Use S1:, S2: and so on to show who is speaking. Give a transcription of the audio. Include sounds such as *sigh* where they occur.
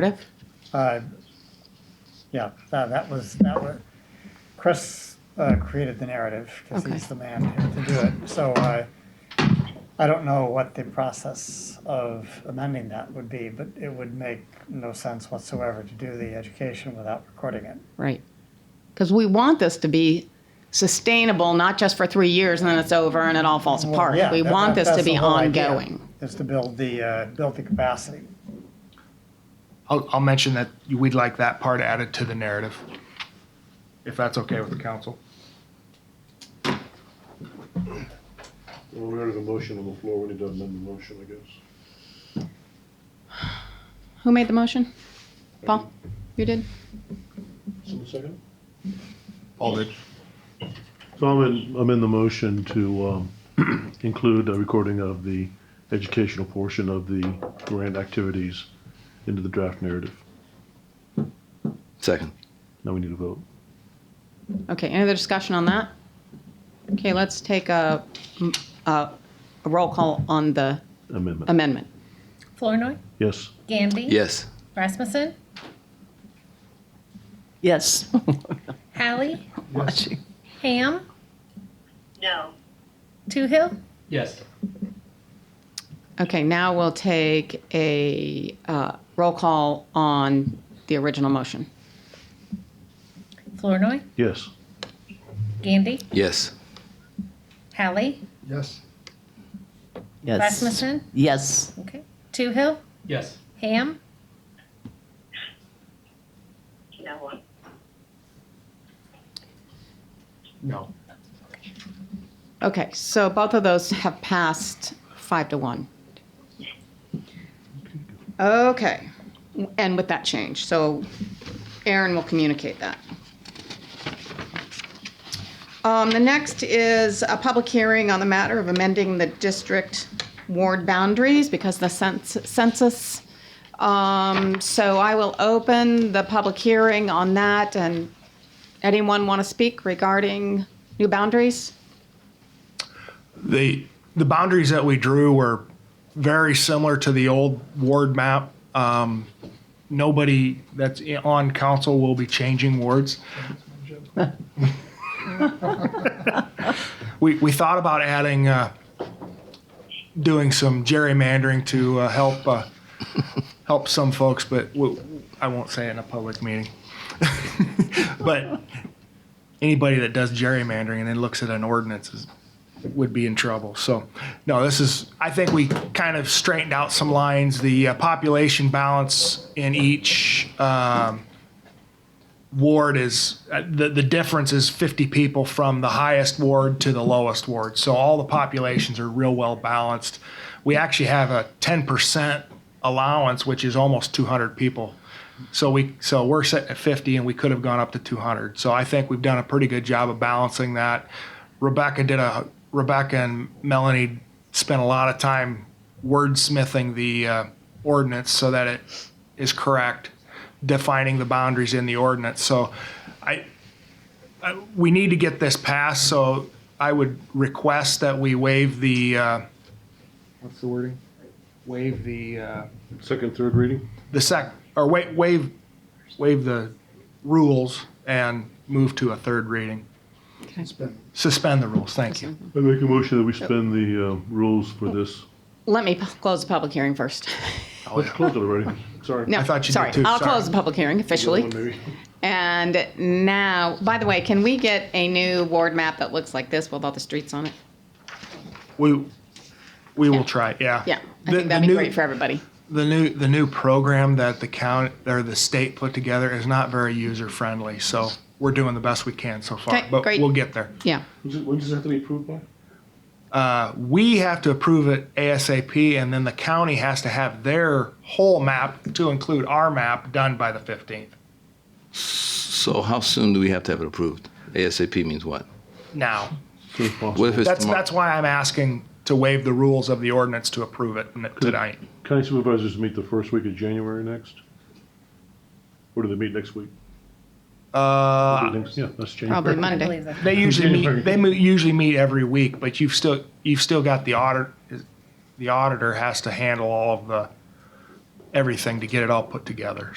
S1: Cardiff?
S2: Uh, Yeah, that that was, that was, Chris uh, created the narrative because
S1: Okay.
S2: he's the man to do it. So uh, I don't know what the process of amending that would be, but it would make no sense whatsoever to do the education without recording it.
S1: Right. Because we want this to be sustainable, not just for three years and then it's over and it all falls
S2: Well,
S1: apart.
S2: yeah,
S1: We
S2: that-
S1: want
S2: that-
S1: this to
S2: that's the
S1: be
S2: whole idea,
S1: ongoing.
S2: Is to build the, uh, build the capacity.
S3: I'll, I'll mention that we'd like that part added to the narrative, if that's okay with the council.
S4: Well, we already have a motion on the floor, we need to amend the motion, I guess.
S1: Who made the motion? Paul? You did?
S4: Someone second?
S3: All did.
S5: So I'm in, I'm in the motion to um, *clears throat* include a recording of the educational portion of the grant activities into the draft narrative.
S6: Second.
S5: Now we need a vote.
S1: Okay, any other discussion on that? Okay, let's take a, a a roll call on the
S5: Amendment.
S1: amendment.
S7: Flournoy,
S5: Yes.
S7: Gandy.
S6: Yes.
S7: Rasmussen,
S8: Yes.
S7: Hallie,
S8: Watching.
S7: Ham,
S9: No.
S7: Toohill,
S10: Yes.
S1: Okay, now we'll take a uh, roll call on the original motion.
S7: Flournoy,
S5: Yes.
S7: Gandy,
S6: Yes.
S7: Hallie,
S3: Yes.
S8: Yes.
S7: Rasmussen,
S8: Yes.
S7: okay, Toohill,
S10: Yes.
S7: Ham,
S9: No.
S10: No.
S1: Okay, so both of those have passed five to one. Okay, and with that change, so Aaron will communicate that. Um, the next is a public hearing on the matter of amending the district ward boundaries because the cens- census. Um, so I will open the public hearing on that and anyone want to speak regarding new boundaries?
S3: The, the boundaries that we drew were very similar to the old ward map. Um, nobody that's i- on council will be changing wards. *laughs* We, we thought about adding, uh, doing some gerrymandering to, uh, help, uh, help some folks, but we, I won't say it in a public meeting. *laughs* But anybody that does gerrymandering and then looks at an ordinance is would be in trouble. So, no, this is, I think we kind of straightened out some lines. The uh, population balance in each um, ward is, uh, the, the difference is 50 people from the highest ward to the lowest ward. So all the populations are real well balanced. We actually have a 10% allowance, which is almost 200 people. So we, so we're sitting at 50 and we could have gone up to 200. So I think we've done a pretty good job of balancing that. Rebecca did a, Rebecca and Melanie spent a lot of time wordsmithing the uh, ordinance so that it is correct, defining the boundaries in the ordinance. So I, I- we need to get this passed, so I would request that we waive the, uh, what's the wording? Waive the, uh,
S4: Second, third reading?
S3: the sec, or wa- waive, waive the rules and move to a third reading.
S1: Okay.
S3: Suspend the rules, thank you.
S5: I make a motion that we suspend the uh, rules for this.
S1: Let me p- close the public hearing
S3: *laughs*
S1: first.
S5: Let's close it already.
S4: Oh, *laughs* Sorry.
S1: No,
S3: I thought you did
S1: sorry.
S3: too,
S1: I'll
S3: sorry.
S1: close the public hearing officially.
S4: Maybe. *laughs*
S1: And now, by the way, can we get a new ward map that looks like this with all the streets on it?
S3: We, we will try, yeah.
S1: Yeah, I
S3: The-
S1: think
S3: the
S1: that'd be
S3: new-
S1: great for everybody.
S3: The new, the new program that the county, or the state put together is not very user-friendly, so we're doing the best we can so far.
S1: Okay,
S3: But
S1: great.
S3: we'll get there.
S1: Yeah,
S4: When does it have to be approved by?
S3: Uh, We have to approve it ASAP, and then the county has to have their whole map, to include our map, done by the 15th.
S6: So how soon do we have to have it approved? ASAP means what?
S3: Now,
S5: As soon as possible.
S6: What if it's
S3: that's,
S6: tomorrow?
S3: that's why I'm asking to waive the rules of the ordinance to approve it n- tonight.
S5: County supervisors meet the first week of January next? Or do they meet next week?
S3: Uh,
S5: Yeah, that's January.
S3: *laughs*
S1: probably
S7: I
S1: Monday.
S7: believe that.
S3: They usually
S5: January.
S3: meet, they mo- usually meet every week, but you've still, you've still got the audit, the auditor has to handle all of the everything to get it all put together.